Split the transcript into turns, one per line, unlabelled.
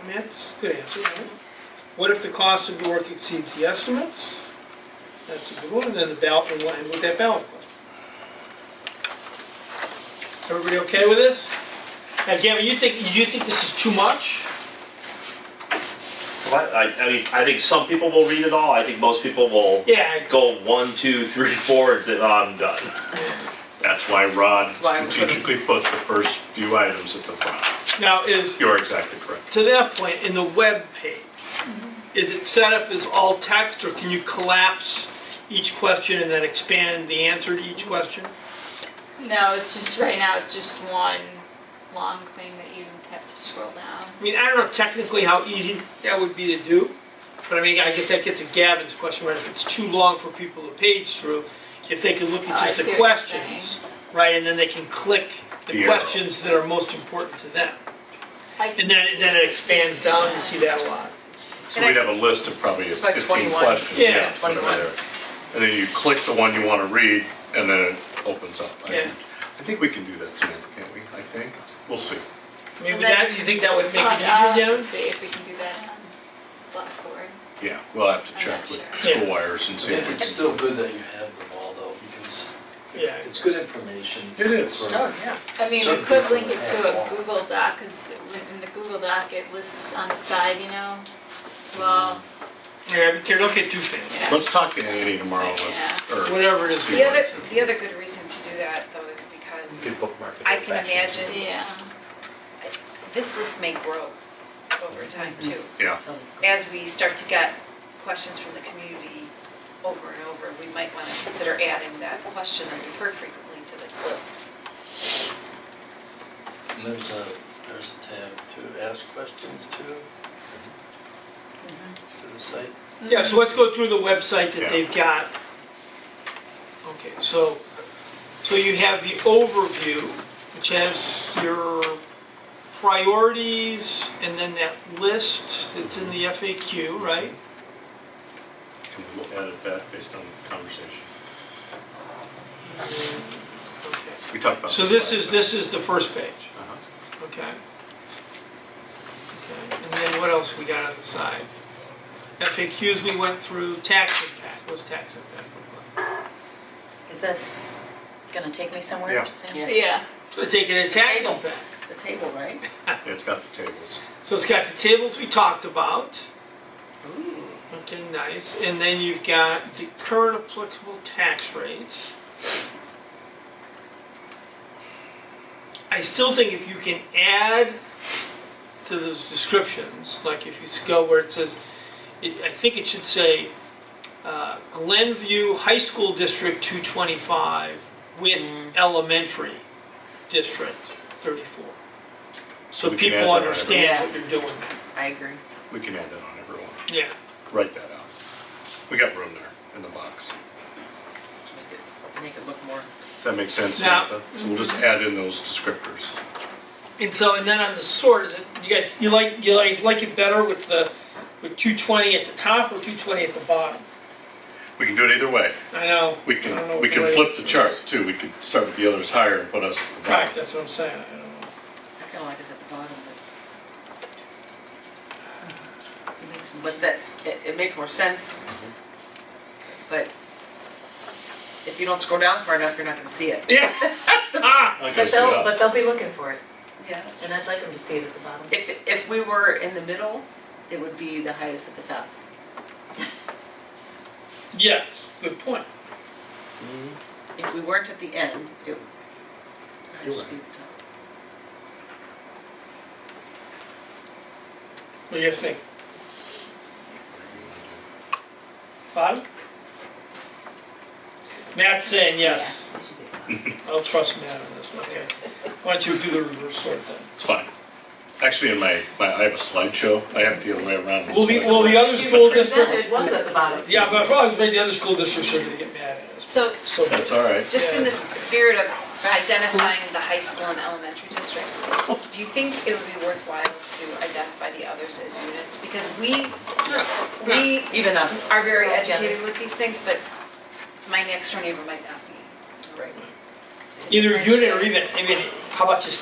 I mean, that's a good answer, right? What if the cost of the work exceeds the estimates? That's a good one, and then the ballot, and what, and what that ballot question. Everybody okay with this? Now, Gavin, you think, you think this is too much?
Well, I, I mean, I think some people will read it all. I think most people will
Yeah, I-
go one, two, three, four, and say, oh, I'm done.
That's why Rod
why we put 'em-
strategically put the first few items at the front.
now is,
You're exactly correct.
to that point, in the web page, is it set up as all text, or can you collapse each question and then expand the answer to each question?
No, it's just, right now, it's just one long thing that you have to scroll down.
I mean, I don't know technically how easy that would be to do, but I mean, I guess that gets to Gavin's question, where if it's too long for people to page through, if they can look
Oh,
at
I
just
see
the
what you're saying.
questions, right, and then they can click the
Yeah.
questions that are most important to them.
I can
And then,
see
then it expands down, you see that a lot.
So
And I-
we'd have a list of probably
like
fifteen
21.
questions.
Yeah,
whatever
21.
there. And then you click the one you wanna read, and then it opens up. I see.
Yeah.
I think we can do that, Samantha, can't we? I think, we'll see.
I mean,
And
would that,
then-
you think that would make
Oh, I'll
it easier,
have to
Gavin?
see if we can do that on Blackboard.
Yeah, we'll have to
I'm
check
not
with
sure. Yeah.
Squires and see if we
It's
can.
still good that you have them all though, because
Yeah.
it's good information.
It is.
for-
Oh, yeah.
I mean, we
Some
could
people
link it
have
to a
all.
Google Doc, because in the Google Doc, it lists on the side, you know? Well,
Yeah, be careful, don't get too fancy,
yeah.
Let's talk to Annie tomorrow, let's- or
whatever it is.
See
The
what
other,
it says.
the other good reason to do that though is because
Good bookmark. it
I
right
can
back in.
imagine
Yeah,
this list may grow over time
Mm-hmm.
too.
yeah,
As we start to get questions from the community over and over, we might want to consider adding that question that we've heard frequently to this list.
And there's a, there's a tab to ask questions to. To the site.
Yeah, so let's go through the website
Yeah.
that they've got. Okay, so, so you have the overview, which has your priorities, and then that list that's in the FAQ, right?
and we'll add it back based on the conversation. Mm-hmm.
Okay.
We talked about this
So
last
this is,
time.
this is the first page,
Uh-huh.
okay? Okay, and then what else we got on the side? FAQs we went through, tax impact, what's tax impact look like?
Is this gonna take me somewhere?
Yeah.
Sam?
Yes.
yeah.
So taking a tax impact.
The table, right?
Yeah, It's got the tables.
So it's got the tables we talked about. Okay, nice. And then you've got the current applicable tax rates. I still think if you can add to those descriptions, like if you go where it says, it, I think it should say uh, Glenview High School District 225 with Elementary District 34. So
we can add
people
that on every-
understand what you're doing.
I agree.
We can add that on everyone.
Yeah.
Write that out. We got room there in the box.
Make it, make it look more.
Does that make sense,
Now-
Samantha? So we'll just add in those descriptors.
And so, and then on the sort, is it, you guys, you like, you guys like it better with the, with two twenty at the top or two twenty at the bottom?
We can do it either way.
I know.
We
I don't know
can,
what
we can
way-
flip the chart too. We could start with the others higher and put us at the
Right,
bottom.
that's what I'm saying, I don't know.
I feel like it's at the bottom, but,
It makes some
but
sense.
that's, it, it makes more sense. But if you don't scroll down far enough, you're not gonna see it.
Yeah. Ah,
Like I
But
see
they'll, but
us.
they'll be looking for it,
Yeah.
and I'd like them to see it at the bottom.
If, if we were in the middle, it would be the highest at the top.
Yes, good point.
If we weren't at the end, it would
You're
just be the top.
What do you guys think? Bottom? Matt's saying yes.
Yeah, it should be at the bottom.
I'll trust Matt on this one, okay. Why don't you do the reverse sort then?
It's fine. Actually, in my, my, I have a slideshow. I have it the other way around.
Will the, will the other school districts?
It was at the bottom.
Yeah, but if I was made the other school districts, are gonna get mad at us.
So
So,
That's all right.
just in the spirit of identifying the high school and elementary districts, do you think it would be worthwhile to identify the others as units? Because we,
yeah.
we
Even us.
are very
Yeah.
educated with these things, but my next door neighbor might not be.
Right.
either unit or even, I mean, how about just